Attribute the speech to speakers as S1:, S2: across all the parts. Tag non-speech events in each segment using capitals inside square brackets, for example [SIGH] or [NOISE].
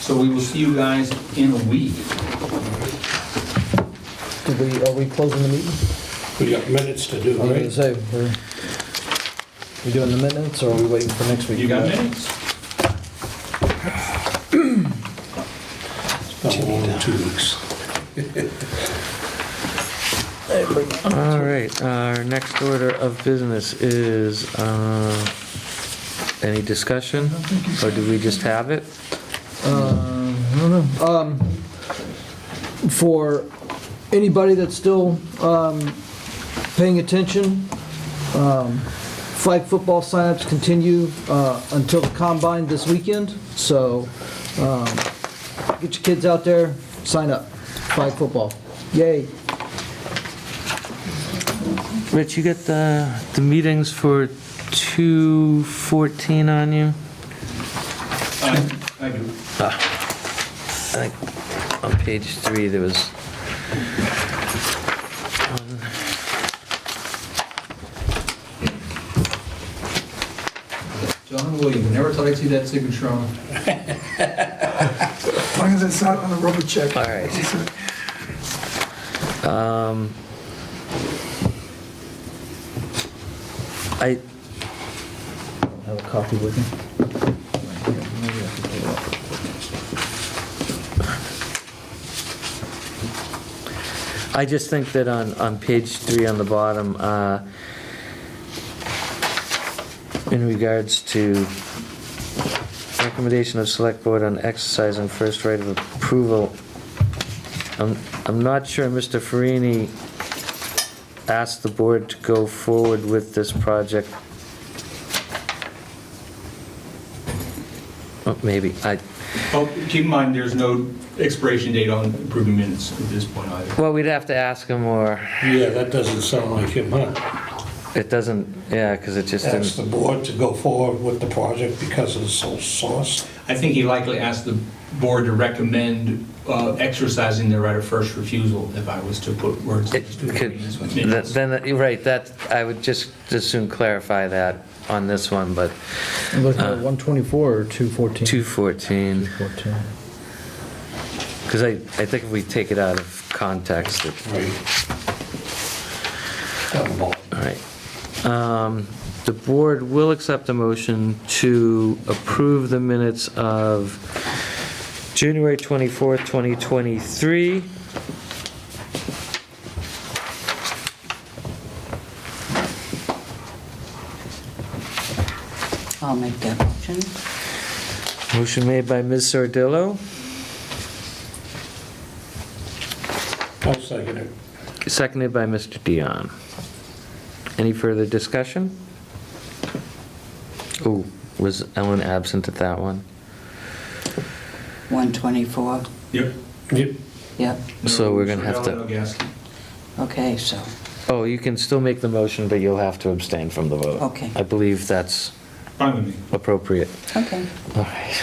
S1: So we will see you guys in a week.
S2: Did we, are we closing the meeting?
S3: We got minutes to do,
S2: I was gonna
S3: right?
S2: say, we're, we doing the minutes or are we waiting for next week?
S1: You got minutes?
S3: About one or two weeks.
S4: All right, our next order of business is, uh, any discussion? Or do we just have it?
S2: For anybody that's still, um, paying attention, um, flag football signups continue, uh, until the combine this weekend. So, um, get your kids out there, sign up, flag football. Yay.
S4: Rich, you got the, the meetings for 2:14 on you?
S1: I I do.
S4: I think on page three, there was.
S1: John William, never thought I'd see that signature on.
S5: As long as it's not on a rubber check.
S4: All right. Um, I,
S2: Have a coffee with me?
S4: I just think that on, on page three on the bottom, uh, in regards to recommendation of select board on exercising first right of approval, I'm, I'm not sure Mr. Farini asked the board to go forward with this project. Oh, Maybe, I,
S1: Oh, keep in mind, there's no expiration date on approving minutes at this point either.
S4: well, we'd have to ask him, or
S3: Yeah, that doesn't sound like him, huh?
S4: it doesn't, yeah, because it just
S3: Ask
S4: didn't,
S3: the board to go forward with the project because of the sole source.
S1: I think he likely asked the board to recommend uh, exercising their right of first refusal if I was to put words.
S4: It could- Th- Then, you're right, that, I would just, just soon clarify that on this one, but
S2: I'm looking
S1: Uh,
S2: at 124 or 214?
S4: 214,
S2: 214.
S4: because I, I think if we take it out of context, it,
S3: Right. Got them all.
S4: all right. Um, The board will accept a motion to approve the minutes of January 24th, 2023.
S6: I'll make that motion.
S4: Motion made by Ms. Sardillo,
S3: I'll second it.
S4: seconded by Mr. Dion. Any further discussion? Oh, was Ellen absent at that one?
S6: 124,
S1: Yep.
S3: Yep.
S6: yep,
S4: So we're gonna have to-
S1: No Gaskin.
S6: okay, so,
S4: Oh, you can still make the motion, but you'll have to abstain from the vote.
S6: Okay.
S4: I believe that's
S1: Fine with me.
S4: appropriate.
S6: okay.
S4: All right.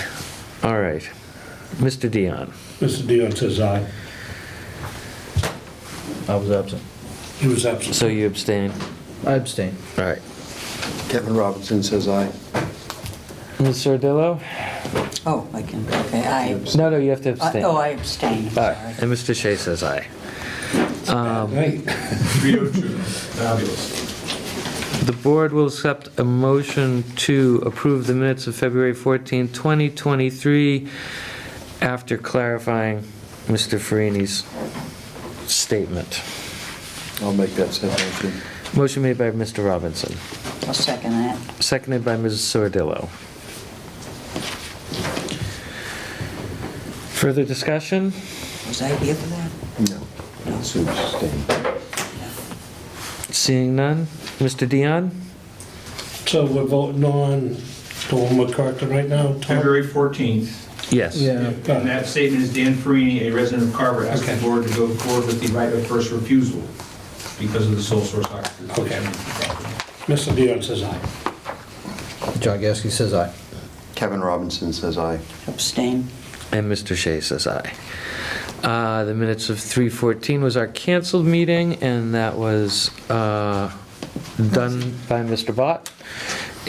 S4: All right. Mr. Dion.
S3: Mr. Dion says aye.
S2: I was absent.
S3: He was absent.
S4: So you abstain?
S2: I abstained.
S4: All right.
S7: Kevin Robinson says aye.
S4: Ms. Sardillo?
S6: Oh, I can, okay, I,
S4: No, no, you have to
S6: I-
S4: abstain.
S6: oh,
S4: All
S6: I abstain,
S4: right.
S6: sorry.
S4: And Mr. Shea says aye. Um,
S3: Right.
S1: [LAUGHS] 302, fabulous.
S4: The board will accept a motion to approve the minutes of February 14, 2023, after clarifying Mr. Farini's statement.
S7: I'll make that said motion.
S4: Motion made by Mr. Robinson.
S6: I'll second that.
S4: Seconded by Mrs. Sordillo. Further discussion?
S6: Was I here for that?
S7: No, Sue abstained.
S4: Seeing none. Mr. Dion?
S3: So we're voting on the one we're correcting right now, Tom?
S1: February 14th.
S4: Yes.
S2: Yeah.
S3: Got
S1: And
S3: it.
S1: that statement is Dan Farini, a resident of Carver, asked the
S3: Okay.
S1: board to go forward with the right of first refusal because of the sole source occupancy.
S3: Okay. Mr. Dion says aye.
S2: John Gasky says aye.
S7: Kevin Robinson says aye.
S6: Abstain,
S4: And Mr. Shea says aye. Uh, The minutes of 3:14 was our canceled meeting, and that was uh, done by Mr. Bott.